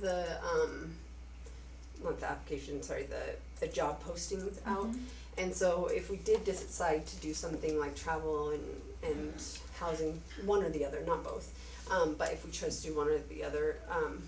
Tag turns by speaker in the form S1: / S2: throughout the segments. S1: the, um, not the application, sorry, the, the job postings out. And so if we did decide to do something like travel and, and housing, one or the other, not both. Um, but if we chose to do one or the other, um,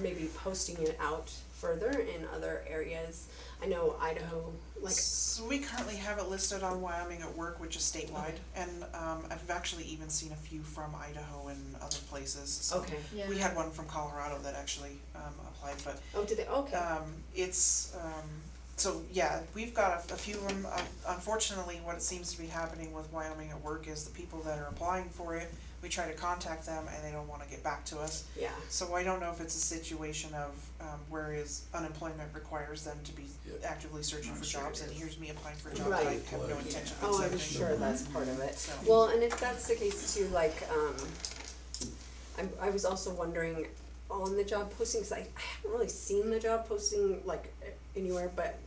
S1: maybe posting it out further in other areas. I know Idaho, like,
S2: So we currently have it listed on Wyoming at Work, which is statewide, and um I've actually even seen a few from Idaho and other places, so.
S1: okay,
S2: We had one from Colorado that actually um applied, but
S1: oh, did they, okay,
S2: um it's um, so yeah, we've got a a few of them, Um, unfortunately, what it seems to be happening with Wyoming at Work is the people that are applying for it, we try to contact them and they don't wanna get back to us.
S1: yeah,
S2: So I don't know if it's a situation of um whereas unemployment requires them to be
S3: Yeah.
S2: actively searching
S3: I'm
S2: for
S3: sure
S2: jobs
S3: it
S2: and
S3: is.
S2: here's me applying for a job that I
S1: Right.
S2: have no
S3: Like,
S2: intention of accepting.
S1: oh, I'm sure that's part of it.
S2: So
S1: Well, and if that's the case too, like, um, I'm, I was also wondering on the job postings, I, I haven't really seen the job posting like anywhere, but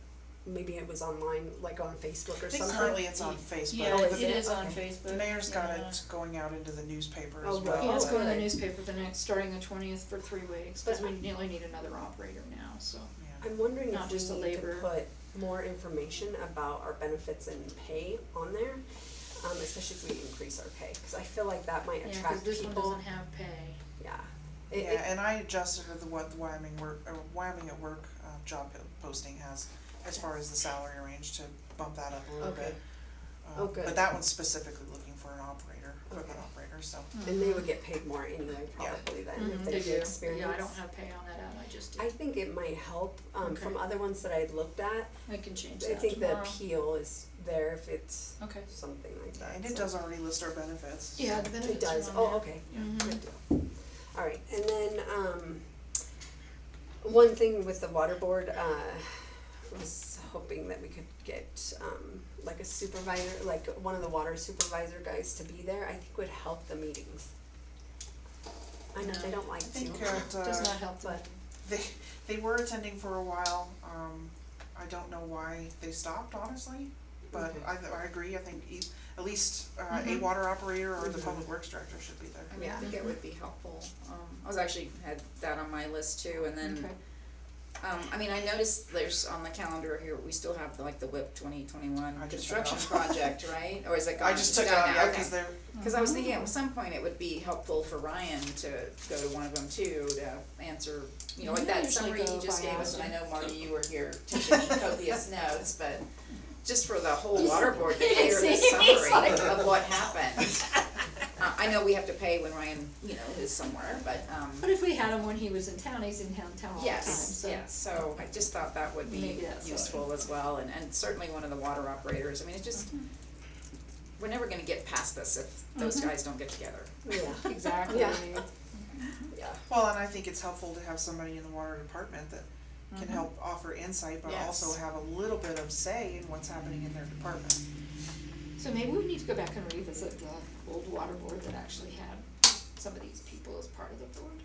S1: maybe it was online, like on Facebook
S2: I
S1: or
S2: think
S1: something.
S2: currently it's on Facebook.
S4: Yeah,
S1: Oh,
S4: it
S1: is
S4: it
S1: it?
S4: is on
S1: Okay.
S4: Facebook.
S2: The mayor's got
S4: Yeah.
S2: it going out into the newspaper as
S1: Oh,
S2: well.
S1: right.
S4: Yeah, it's going to the
S1: Okay.
S4: newspaper the next, starting the twentieth for three weeks, cause
S1: But-
S4: we nearly need another operator now, so.
S2: Yeah.
S1: I'm wondering
S4: Not
S1: if
S4: just a
S1: we need to
S4: labor.
S1: put more information about our benefits and pay on there, um, especially if we increase our pay, cause I feel like that might
S4: Yeah,
S1: attract people.
S4: cause this one doesn't have pay.
S1: Yeah. It- it-
S2: Yeah, and I adjusted with what the Wyoming work, or Wyoming at work uh job po- posting has as far as the salary range to bump that up a little
S1: Okay.
S2: bit. Um,
S1: Oh, good.
S2: But that one's specifically looking for an operator, equipment
S1: Okay.
S2: operator, so.
S1: And they would get paid more anyway,
S2: Yeah.
S1: probably than
S4: Mhm,
S1: if they
S4: they
S1: did
S4: do.
S1: experience.
S4: Yeah, I don't have pay on that ad, I just
S1: I
S4: did,
S1: think it might help, um, from
S4: Okay.
S1: other ones that I looked at,
S4: I can change
S1: I
S4: that
S1: think the
S4: tomorrow.
S1: appeal is there if it's
S4: Okay.
S1: something like that,
S2: And it
S1: so.
S2: does already list our benefits.
S4: Yeah, the
S1: It
S4: benefits are
S1: does,
S4: on
S1: oh,
S4: there.
S1: okay,
S4: Mhm.
S1: good deal. Alright, and then, um, one thing with the water board, uh, was hoping that we could get, um, like a supervisor, like one of the water supervisor guys to be there, I think would help the meetings. I know they don't like
S2: I
S1: to.
S2: think at uh
S4: Does not help the
S1: but-
S2: they they were attending for a while, um I don't know why they stopped honestly, but
S1: Okay.
S2: I th- I agree, I think e- at least uh a
S4: Mhm.
S2: water operator or the
S4: Mm-hmm.
S1: Mhm.
S2: public works director should be there.
S5: I mean,
S1: Yeah.
S5: I think it would be helpful, um, I was actually had that on my list too, and then,
S4: Okay.
S5: um, I mean, I noticed there's on the calendar here, we still have like the WIP twenty twenty-one
S2: I just took it
S5: construction
S2: off.
S5: project, right? Or is it gone?
S2: I just took
S5: It's done
S2: out,
S5: now,
S2: yeah,
S5: okay.
S2: cause they're,
S5: Cause I was thinking
S4: Oh. Mm-hmm.
S5: at some point it would be helpful for Ryan to go to one of them too, to answer, you know, like
S4: Yeah,
S5: that
S4: usually
S5: summary
S4: go
S5: he just
S4: by
S5: gave us, and I
S4: Adam.
S5: know Marty, you were here teaching me copious notes, but just for the whole water board to
S4: You
S5: hear the
S4: see, he's
S5: summary
S4: like-
S5: of what happened. Uh, I know we have to pay when Ryan, you know, is somewhere, but,
S4: But
S5: um,
S4: if we had him when he was in town, he's in town, town all the time,
S5: yes,
S4: so.
S5: yes, so I just thought that would be
S4: Maybe that's
S5: useful as well, and, and certainly one of the water operators, I mean, it just,
S4: Mm-hmm.
S5: we're never gonna get past this if those
S4: Mhm.
S5: guys don't get together.
S1: Yeah,
S4: Exactly.
S1: Yeah. yeah.
S2: well, and I think it's helpful to have somebody in the water department that can
S4: Mm-hmm.
S2: help offer insight, but also
S5: Yes.
S2: have a little bit of say in what's happening in their department.
S4: So maybe we need to go back and revisit the old water board that actually had some of these people as part of the board.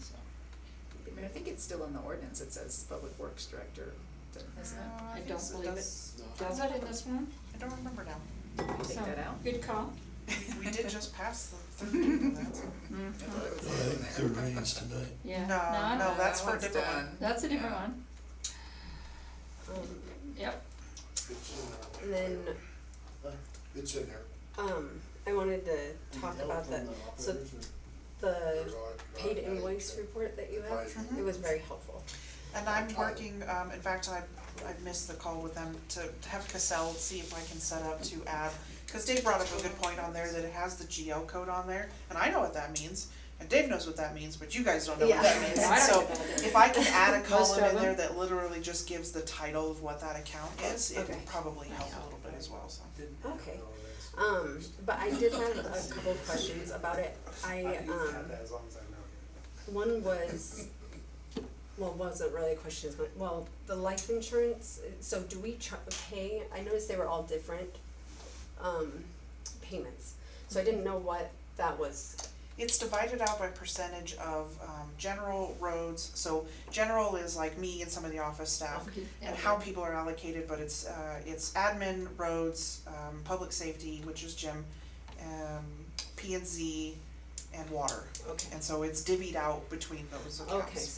S4: So,
S5: I mean, I think it's still in the ordinance, it says public works director, isn't it?
S2: Uh,
S4: I
S2: think
S4: don't
S2: so,
S4: believe it
S2: that's-
S4: does that in this one?
S2: I don't remember now,
S5: Take
S4: So,
S5: that out?
S4: Good call.
S2: Oh, We- we did just pass the third reading of that, so.
S5: I thought it was
S3: I
S5: all in
S3: think
S5: there.
S3: third reading's tonight.
S4: Yeah.
S2: Mm-hmm. No,
S4: I
S2: no,
S4: don't-
S2: that's for a
S5: one's
S2: different one.
S5: done.
S4: That's a different
S5: Yeah.
S4: one.
S1: Um,
S4: Yep.
S1: and then,
S6: It's in there.
S1: um, I wanted to talk about the, so the paid invoice report that you have. It was very helpful.
S2: And I'm working, um, in fact, I, I missed the call with them to to have Cassell see if I can set up to add, cause Dave brought up a good point on there that it has the GL code on there, and I know what that means, and Dave knows what that means, but you guys don't know what that
S1: Yeah.
S2: means,
S4: No, I don't
S2: so
S4: know about it.
S2: if I can add
S4: Most
S2: a column
S4: of
S2: in there
S4: them.
S2: that literally just gives the title of what that account is, it
S1: Okay.
S2: would probably help
S4: Yeah.
S2: a little bit as well, so.
S1: Okay. Um, but I did have a couple of questions about it. I, um,
S6: as long as I know.
S1: one was, well, wasn't really a question, but, well, the life insurance, so do we char- pay, I noticed they were all different, um, payments. So I didn't know what that was.
S2: It's divided out by percentage of, um, general roads, so general is like me and some of the office staff, and how people are allocated, but it's, uh, it's admin, roads, um, public safety, which is Jim, um, P and Z, and water.
S1: Okay.
S2: And so it's divvied out between those accounts.
S1: Okay,